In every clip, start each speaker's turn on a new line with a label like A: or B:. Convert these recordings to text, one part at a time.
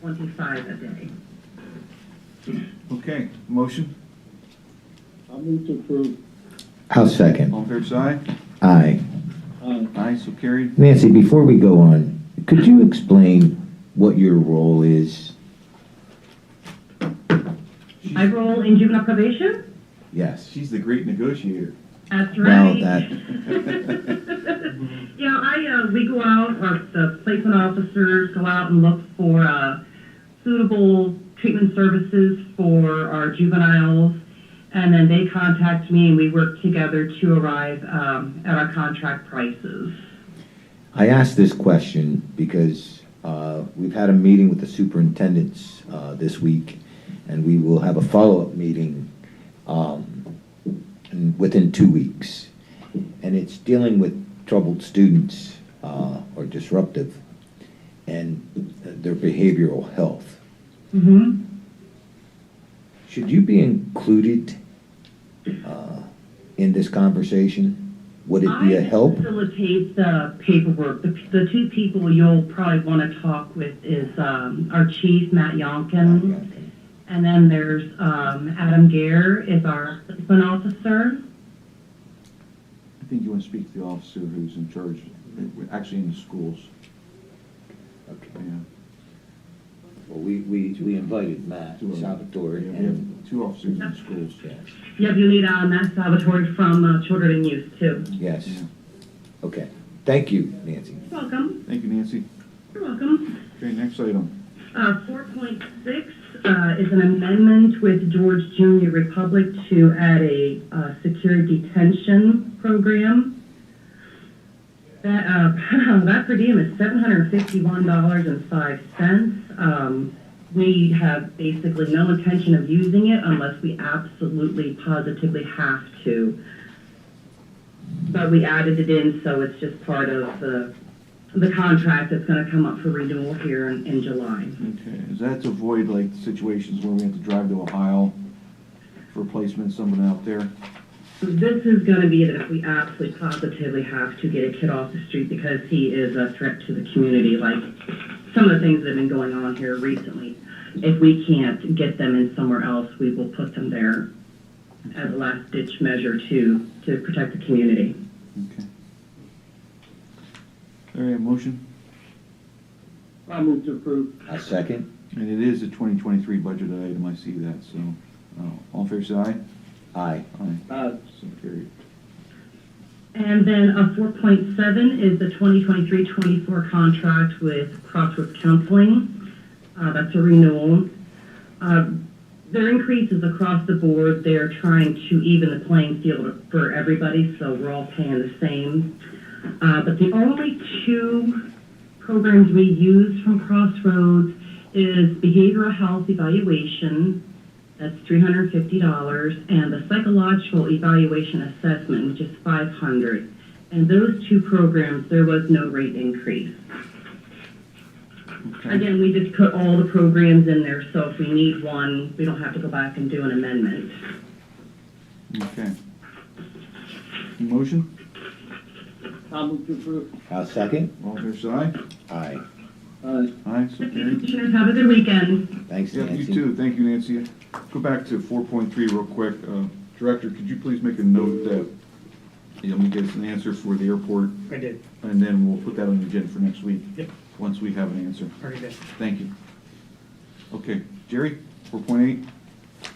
A: twenty-five a day.
B: Okay, motion,
C: I'll move to approve.
D: I'll second.
B: all fair side?
D: Aye.
C: Aye.
B: Aye, so carried.
D: Nancy, before we go on, could you explain what your role is?
A: I roll in juvenile probation?
D: Yes.
B: She's the great negotiator.
A: That's
D: Well,
A: right.
D: that- Mm-hmm.
A: Yeah, I, uh, we go out, or the placement officers go out and look for, uh, suitable treatment services for our juveniles. And then they contact me and we work together to arrive, um, at our contract prices.
D: I asked this question because uh, we've had a meeting with the superintendents uh, this week, and we will have a follow-up meeting um, in- within two weeks. And it's dealing with troubled students uh, or disruptive and uh, their behavioral health.
A: Mm-hmm.
D: Should you be included uh, in this conversation? Would it be a help?
A: I facilitate the paperwork. The, the two people you'll probably want to talk with is, um, our chief, Matt Yonkin. And then there's, um, Adam Gare is our placement officer.
B: I think you want to speak to the officer who's in charge, actually in the schools,
D: Okay.
B: yeah.
D: Well, we, we, we invited Matt
B: Two of them.
D: Salvatore
B: Yeah, We have
D: and,
B: two officers in schools.
D: yeah,
A: Yep, you need, uh, Matt Salvatore from, uh, Children and Youth too.
D: yes,
B: Yeah.
D: okay. Thank you, Nancy.
A: You're welcome.
B: Thank you, Nancy.
A: You're welcome.
B: Okay, next item.
A: Uh, four point six, uh, is an amendment with George Junior Republic to add a, uh, secure detention program. That, uh, that per diem is seven hundred and fifty-one dollars and five cents. Um, we have basically no intention of using it unless we absolutely positively have to. But we added it in, so it's just part of the, the contract that's gonna come up for renewal here in, in July.
B: Okay, is that to avoid like situations where we have to drive to Ohio for placement, someone out there?
A: This is gonna be that if we absolutely positively have to get a kid off the street because he is a threat to the community, like some of the things that have been going on here recently. If we can't get them in somewhere else, we will put them there as a last ditch measure to, to protect the community.
B: Okay. All right, motion,
C: I'll move to approve.
D: A second?
B: and it is a 2023 budget item, I see that, so, uh, all fair side?
D: Aye.
B: Aye,
C: Aye.
B: so carried.
A: And then uh four point seven is the 2023-24 contract with Crossroads Counseling. Uh, that's a renewal. Uh, their increases across the board, they're trying to even the playing field for everybody, so we're all paying the same. Uh, but the only two programs we use from Crossroads is behavioral health evaluation, that's three hundred and fifty dollars, and the psychological evaluation assessment, which is five hundred. And those two programs, there was no rate increase.
B: Okay,
A: Again, we just put all the programs in there, so if we need one, we don't have to go back and do an amendment.
B: okay. Motion,
C: I'll move to approve.
D: A second?
B: all fair side?
D: Aye.
C: Aye.
B: Aye, so carried.
A: Commissioners, have a good weekend.
D: Thanks,
B: Yeah,
D: Nancy.
B: you too, thank you, Nancy. Go back to 4.3 real quick. Uh, Director, could you please make a note that, you know, we get an answer for the airport
E: I did,
B: And then we'll put that on the agenda for next week.
E: Yep.
B: Once we have an answer.
E: already did.
B: Thank you. Okay, Jerry, four point eight?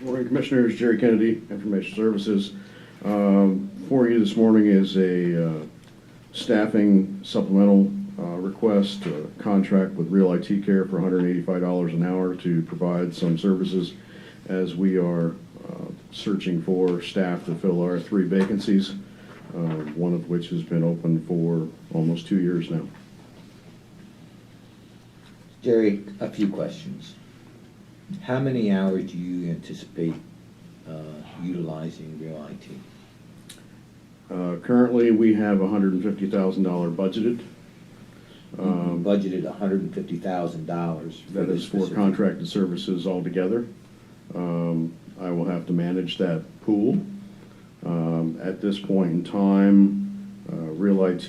F: Morning Commissioners, Jerry Kennedy, Information Services. Um, For you this morning is a uh, staffing supplemental uh, request, a contract with Real IT Care for $185 an hour to provide some services as we are uh, searching for staff to fill our three vacancies, uh, one of which has been open for almost two years now.
D: Jerry, a few questions. How many hours do you anticipate uh, utilizing Real IT?
F: Uh, Currently, we have $150,000 budgeted.
D: You
F: Um,
D: Budgeted hundred and fifty thousand dollars.
F: That is for contracted services altogether. Um, I will have to manage that pool. Um, At this point in time, Uh, Real IT